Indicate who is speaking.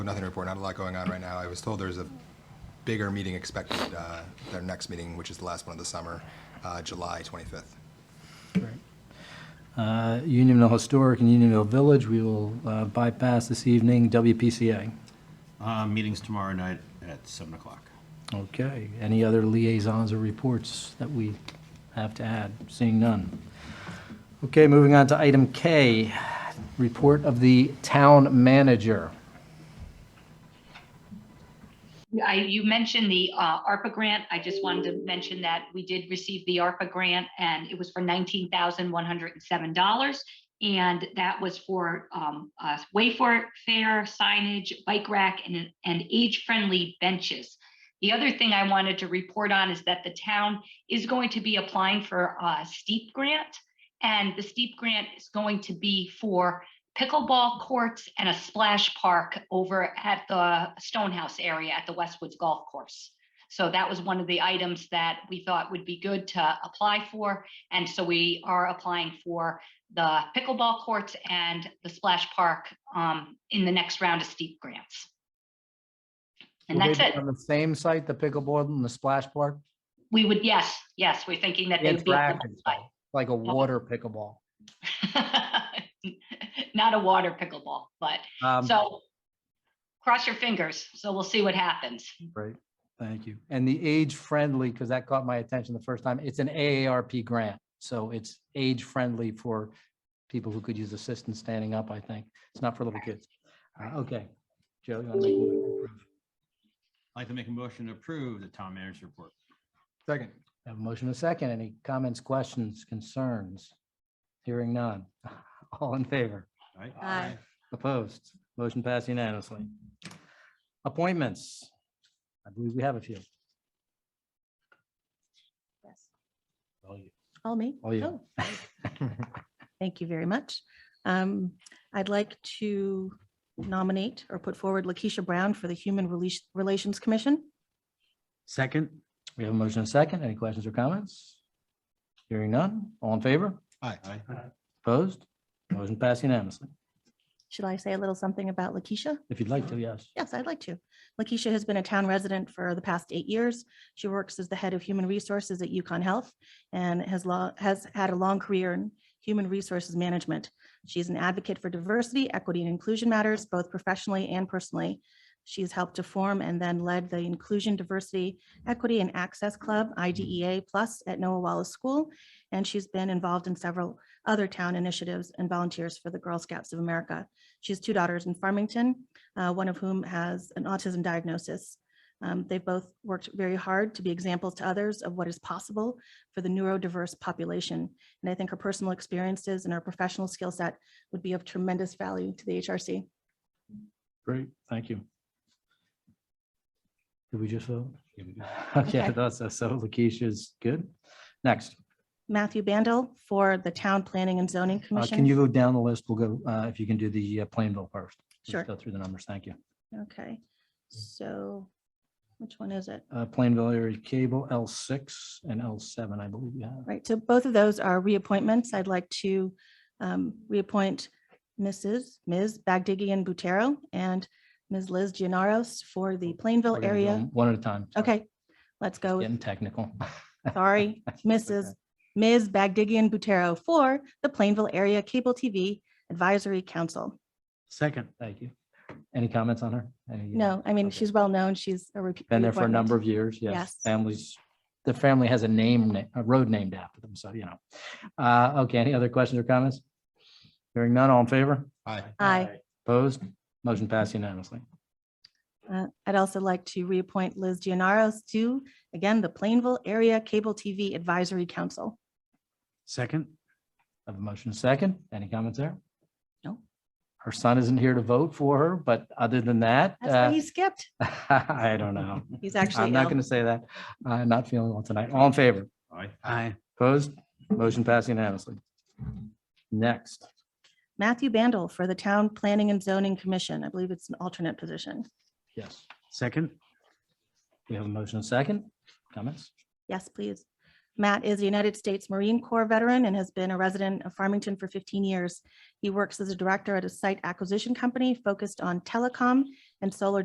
Speaker 1: Nothing to report, not a lot going on right now. I was told there's a bigger meeting expected, uh, their next meeting, which is the last one of the summer, uh, July 25th.
Speaker 2: Uh, Unionville Historic and Unionville Village, we will uh, bypass this evening WPCA.
Speaker 3: Uh, Meeting's tomorrow night at 7 o'clock.
Speaker 2: Okay, any other liaisons or reports that we have to add? Seeing none. Okay, moving on to item K, report of the town manager.
Speaker 4: I, you mentioned the uh, ARPA grant. I just wanted to mention that we did receive the ARPA grant and it was for $19,107. And that was for um, uh, Wayfair fair signage, bike rack, and, and age-friendly benches. The other thing I wanted to report on is that the town is going to be applying for a steep grant. And the steep grant is going to be for pickleball courts and a splash park over at the Stonehouse area at the Westwoods Golf Course. So that was one of the items that we thought would be good to apply for. And so we are applying for the pickleball courts and the splash park um, in the next round of steep grants. And
Speaker 2: Will they
Speaker 4: that's
Speaker 2: be
Speaker 4: it.
Speaker 2: On the same site, the pickleball and the splash park?
Speaker 4: We would, yes, yes, we're thinking that they would be. on
Speaker 2: Interactive,
Speaker 4: that
Speaker 2: Like a water pickleball.
Speaker 4: site. Not a water pickleball, but
Speaker 2: Um,
Speaker 4: So cross your fingers. So we'll see what happens.
Speaker 2: Great, thank you. And the age-friendly, because that caught my attention the first time, it's an AARP grant. So it's age-friendly for people who could use assistance standing up, I think. It's not for little kids. Uh, Okay. Joe, you want to make? a motion?
Speaker 3: I'd like to make a motion to approve the town manager's report.
Speaker 1: Second.
Speaker 2: Have a motion and a second. Any comments, questions, concerns? Hearing none. All in favor?
Speaker 3: All right?
Speaker 5: Aye.
Speaker 2: Opposed? Motion passed unanimously. Appointments. I believe we have a few.
Speaker 5: Yes. All me?
Speaker 2: All you.
Speaker 5: Oh, Thank you very much. Um, I'd like to nominate or put forward Lakeisha Brown for the Human Relas- Relations Commission.
Speaker 2: Second. We have a motion and a second. Any questions or comments? Hearing none. All in favor?
Speaker 3: Aye.
Speaker 2: Opposed? Motion passed unanimously.
Speaker 5: Should I say a little something about Lakeisha?
Speaker 2: If you'd like to, yes.
Speaker 5: Yes, I'd like to. Lakeisha has been a town resident for the past eight years. She works as the head of human resources at Yukon Health and has lo- has had a long career in human resources management. She's an advocate for diversity, equity, and inclusion matters, both professionally and personally. She's helped to form and then led the Inclusion, Diversity, Equity, and Access Club, IDEA Plus, at Noah Wallace School. And she's been involved in several other town initiatives and volunteers for the Girl Scouts of America. She has two daughters in Farmington, uh, one of whom has an autism diagnosis. Um, They've both worked very hard to be examples to others of what is possible for the neurodiverse population. And I think her personal experiences and her professional skill set would be of tremendous value to the HRC.
Speaker 2: Great, thank you. Did we just vote?
Speaker 3: Yeah, we do.
Speaker 2: Okay, I
Speaker 5: Okay.
Speaker 2: thought so. So Lakeisha is good. Next, Uh,
Speaker 5: Matthew Bandel for the Town Planning and Zoning
Speaker 2: uh,
Speaker 5: Commission.
Speaker 2: can you go down the list? We'll go, uh, if you can do the uh, Plainville first. Let's
Speaker 5: Sure.
Speaker 2: Go through the numbers, thank you.
Speaker 5: Okay, so which one is it?
Speaker 2: Uh, Plainville area cable, L6 and L7, I believe you have.
Speaker 5: Right, so both of those are reappointments. I'd like to um, reappoint Mrs., Ms. Bagdigian Butero and Ms. Liz Gianaros for the
Speaker 2: We're
Speaker 5: Plainville
Speaker 2: gonna do
Speaker 5: area.
Speaker 2: them One at a time. Oh, sorry.
Speaker 5: Okay, let's go. with-
Speaker 2: Getting technical.
Speaker 5: Sorry, Mrs. Ms. Bagdigian Butero for the Plainville Area Cable TV Advisory Council.
Speaker 2: Second. Thank you. Any comments on her? Any, uh,
Speaker 5: No, I mean,
Speaker 2: okay.
Speaker 5: she's well-known. She's a repeat.
Speaker 2: Been there for a
Speaker 5: reappointment.
Speaker 2: number of years, yes.
Speaker 5: Yes.
Speaker 2: Families, the family has a name, na- a road named after them, so you know. Uh, okay, any other questions or comments? Hearing none, all in favor?
Speaker 1: Aye.
Speaker 5: Aye.
Speaker 2: Opposed? Motion passed unanimously.
Speaker 5: Uh, I'd also like to reappoint Liz Gianaros to, again, the Plainville Area Cable TV Advisory Council.
Speaker 2: Second. Have a motion second. Any comments there?
Speaker 5: No.
Speaker 2: Her son isn't here to vote for her, but other than that,
Speaker 5: That's why
Speaker 2: uh,
Speaker 5: he skipped.
Speaker 2: I don't know.
Speaker 5: He's
Speaker 2: I'm
Speaker 5: actually
Speaker 2: not
Speaker 5: ill.
Speaker 2: going to say that. I'm not feeling well tonight. All in favor?
Speaker 3: Aye.
Speaker 2: Aye. Opposed? Motion passed unanimously. Next.
Speaker 5: Matthew Bandel for the Town Planning and Zoning Commission. I believe it's an alternate position.
Speaker 2: Yes. Second. We have a motion and second. Comments?
Speaker 5: Yes, please. Matt is a United States Marine Corps veteran and has been a resident of Farmington for 15 years. He works as a director at a site acquisition company focused on telecom and solar